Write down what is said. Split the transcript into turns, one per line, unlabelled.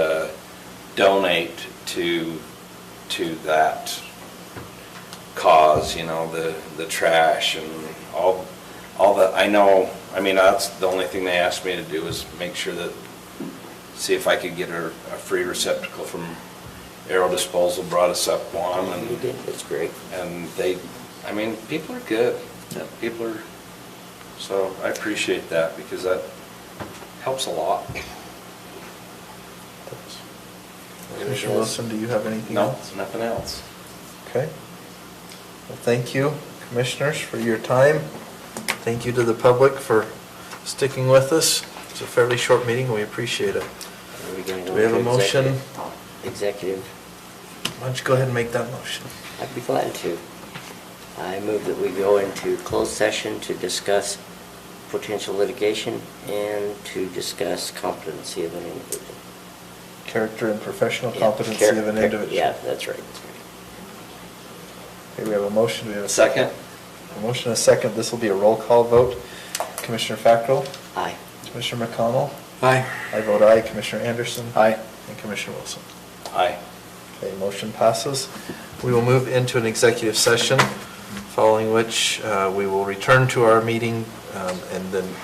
uh, donate to, to that cause, you know, the, the trash and all, all that, I know, I mean, that's the only thing they asked me to do is make sure that, see if I could get a, a free receptacle from Aero Disposal, brought us up one,
You
and,
did, that's great.
and they, I mean, people are good.
Yep.
People are, so I appreciate that, because that helps a lot.
Commissioner Wilson, do you have anything
No,
else?
nothing else.
Okay. Well, thank you, commissioners, for your time. Thank you to the public for sticking with us. It's a fairly short meeting, we appreciate it. Do we have a motion?
Executive,
Why don't you go ahead and make that motion?
I'd be glad to. I move that we go into closed session to discuss potential litigation and to discuss competency of an individual.
Character and professional
Yeah,
competency
char-
of an
char-
individual.
Yeah, that's right, that's right.
Okay, we have a motion, we have a
Second?
second. A motion and a second, this will be a roll call vote. Commissioner Fackrell?
Aye.
Commissioner McConnell?
Aye.
I vote aye. Commissioner Anderson?
Aye.
And Commissioner Wilson?
Aye.
Okay, motion passes. We will move into an executive session, following which uh, we will return to our meeting um, and then